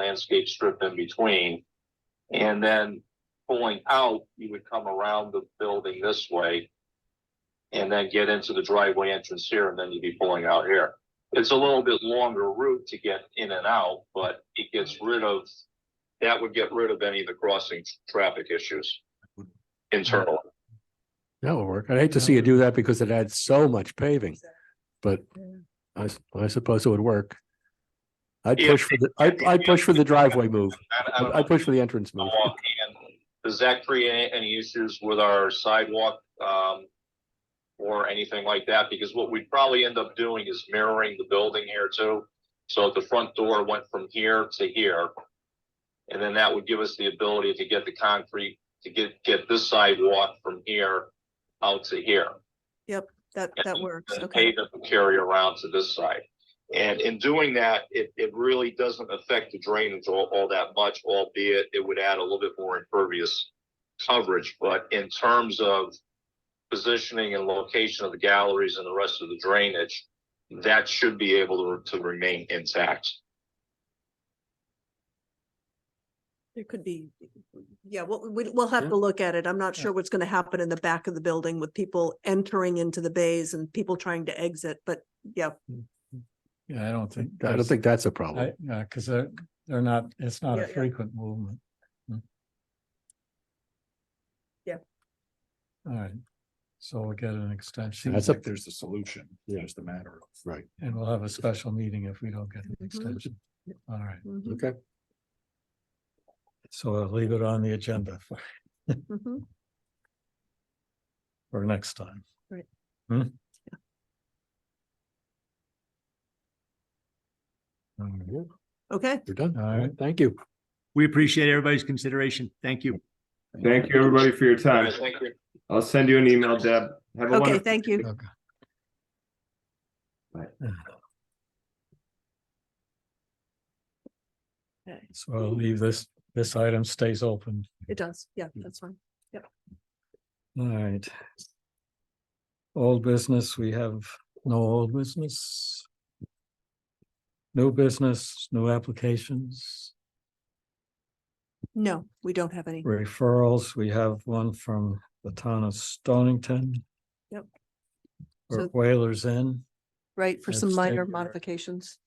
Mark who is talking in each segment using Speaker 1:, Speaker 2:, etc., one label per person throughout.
Speaker 1: landscape strip in between. And then pulling out, you would come around the building this way. And then get into the driveway entrance here, and then you'd be pulling out here. It's a little bit longer route to get in and out, but it gets rid of. That would get rid of any of the crossing traffic issues. Internal,
Speaker 2: That would work. I'd hate to see you do that because it adds so much paving, but I, s- I suppose it would work. I'd
Speaker 1: Yeah.
Speaker 2: push for the, I, I'd push for the driveway move.
Speaker 1: I- I don't know.
Speaker 2: I'd push for the entrance move.
Speaker 1: sidewalk and does that create any issues with our sidewalk, um, or anything like that? Because what we'd probably end up doing is mirroring the building here too. So if the front door went from here to here, and then that would give us the ability to get the concrete, to get, get this sidewalk from here out to here.
Speaker 3: That,
Speaker 1: Yeah,
Speaker 3: that works,
Speaker 1: The
Speaker 3: okay.
Speaker 1: pavement will carry around to this side. And in doing that, it, it really doesn't affect the drainage all, all that much, albeit it would add a little bit more impervious coverage, but in terms of positioning and location of the galleries and the rest of the drainage, that should be able to, to remain intact.
Speaker 3: There could be, yeah, we'll, we- we'll have
Speaker 2: Yeah.
Speaker 3: to look at it. I'm not
Speaker 2: Yeah.
Speaker 3: sure what's gonna happen in the back of the building with people entering into the bays and people trying to exit, but yeah,
Speaker 4: Yeah, I don't think.
Speaker 2: I don't think that's a problem.
Speaker 4: I, yeah, because they're, they're not, it's not a
Speaker 3: Yeah, yeah.
Speaker 4: frequent movement. Hmm.
Speaker 3: Yeah.
Speaker 4: All right, so we'll get an extension
Speaker 2: That's a,
Speaker 5: there's a solution,
Speaker 2: Yeah.
Speaker 5: there's the matter of.
Speaker 2: right.
Speaker 4: and we'll have a special meeting if we don't get an
Speaker 3: Mhm.
Speaker 4: extension. All right,
Speaker 3: mhm,
Speaker 2: Okay.
Speaker 4: so I'll leave it on the agenda for,
Speaker 3: mhm.
Speaker 4: for next time.
Speaker 3: Right.
Speaker 4: Hmm? All right.
Speaker 3: okay.
Speaker 2: You're done.
Speaker 4: All right.
Speaker 2: Thank you.
Speaker 6: We appreciate everybody's consideration. Thank you.
Speaker 7: Thank you, everybody, for your time.
Speaker 1: Thank you.
Speaker 7: I'll send you an email, Deb. Have a
Speaker 3: Okay,
Speaker 7: wonderful.
Speaker 3: thank you.
Speaker 4: Okay.
Speaker 7: Right.
Speaker 3: Okay,
Speaker 4: So I'll leave this, this item stays open.
Speaker 3: It does, yeah, that's fine.
Speaker 4: All right. Old business, we have no old business. New business, new applications,
Speaker 3: No, we don't have any.
Speaker 4: referrals. We have one from the town of Stonington.
Speaker 3: Yep.
Speaker 4: For
Speaker 3: So-
Speaker 4: Whalers Inn
Speaker 3: Right, for some
Speaker 4: Let's take
Speaker 3: minor
Speaker 4: our-
Speaker 3: modifications.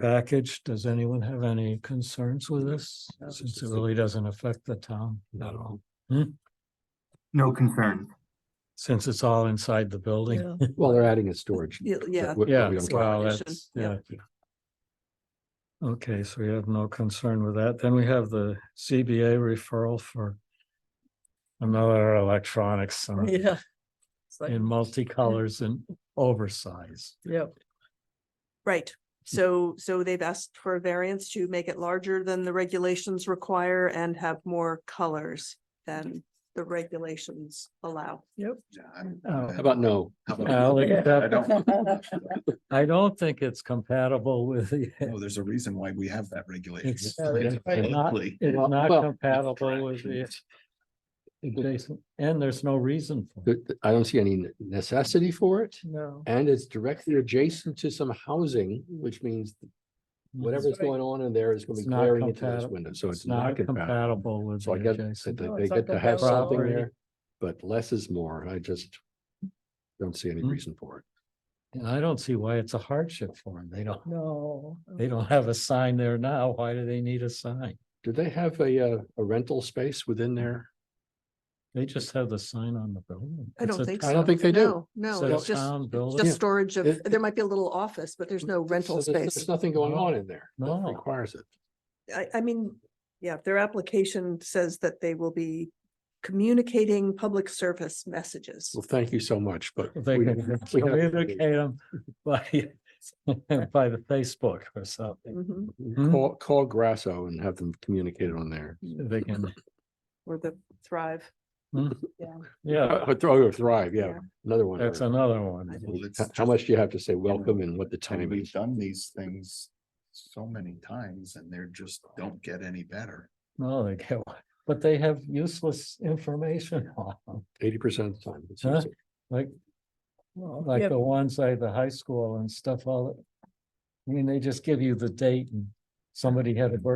Speaker 4: package. Does anyone have any concerns with this? Since it really doesn't affect the town at all,
Speaker 6: No concern.
Speaker 4: since it's all inside the building.
Speaker 3: Yeah,
Speaker 2: Well, they're adding a storage.
Speaker 3: Yeah, yeah,
Speaker 2: that we- that
Speaker 4: Yeah,
Speaker 2: we don't care.
Speaker 4: well,
Speaker 3: Addition,
Speaker 4: that's, yeah.
Speaker 3: yeah.
Speaker 4: Okay, so we have no concern with that. Then we have the CBA referral for another electronics and-
Speaker 3: yeah. It's like-
Speaker 4: in multicolors and oversize.
Speaker 3: Yep. Right, so, so they've asked for a variance to make it larger than the regulations require and have more colors than the regulations allow. Yep.
Speaker 4: Oh,
Speaker 2: How about no?
Speaker 4: I'll
Speaker 5: I
Speaker 4: accept-
Speaker 5: don't,
Speaker 4: I don't think it's compatible with the,
Speaker 5: no, there's a reason why we have that regulation.
Speaker 4: It's-
Speaker 5: It's made
Speaker 4: it's not-
Speaker 5: publicly.
Speaker 4: it's
Speaker 2: Well,
Speaker 4: not
Speaker 2: well-
Speaker 4: compatible with the adjacent, and there's no reason for it.
Speaker 2: Th- th- Uh, I don't see any necessity for it.
Speaker 4: No.
Speaker 2: And it's directly adjacent to some housing, which means whatever's going on in there is gonna be
Speaker 4: It's not
Speaker 2: glaring into those
Speaker 4: compatible.
Speaker 2: windows, so it's not compatible.
Speaker 4: compatible with.
Speaker 2: So I
Speaker 4: the
Speaker 2: get,
Speaker 4: adjacent-
Speaker 2: that they get to have something
Speaker 4: property.
Speaker 2: there, but less is more. I just don't see any
Speaker 4: Hmm.
Speaker 2: reason for it.
Speaker 4: And I don't see why it's a hardship for them. They don't. No. They don't have a sign there now. Why do they need a sign?
Speaker 2: Do they have a, uh, a rental space within there?
Speaker 4: They just have the sign on the building.
Speaker 3: I don't think so.
Speaker 2: I don't think they do.
Speaker 3: No, No,
Speaker 4: So
Speaker 3: it's just,
Speaker 4: town
Speaker 3: it's
Speaker 4: building.
Speaker 3: just storage of,
Speaker 2: It-
Speaker 3: there might be a little office, but there's no rental
Speaker 2: So there's-
Speaker 3: space.
Speaker 2: There's nothing going on in there. that
Speaker 4: No.
Speaker 2: Requires it.
Speaker 3: I, I mean, yeah, their application says that they will be communicating public service messages.
Speaker 2: Well, thank you so much, but.
Speaker 4: They
Speaker 2: we-
Speaker 4: can
Speaker 2: we have-
Speaker 4: communicate them by, by the Facebook or something.
Speaker 3: Mhm,
Speaker 4: Hmm?
Speaker 2: Call, call Grasso and have them communicate on there.
Speaker 4: They can,
Speaker 3: Or the Thrive.
Speaker 4: yeah,
Speaker 2: Uh, Throw or thrive, yeah,
Speaker 3: Yeah.
Speaker 2: another one.
Speaker 4: that's
Speaker 2: or-
Speaker 4: another
Speaker 3: I
Speaker 4: one.
Speaker 5: Well, it's
Speaker 2: How- How
Speaker 5: just-
Speaker 2: much do you have to say welcome and what the
Speaker 5: And
Speaker 2: time
Speaker 5: we've
Speaker 2: is?
Speaker 5: done these things so many times and they're just don't get any better.
Speaker 4: No, they get, one. but they have useless information on them.
Speaker 2: Eighty percent of the time. it's
Speaker 4: Huh?
Speaker 2: easy.
Speaker 4: Like, well, like the ones at the high school and stuff, all. I mean, they just give you the date and somebody had a birthday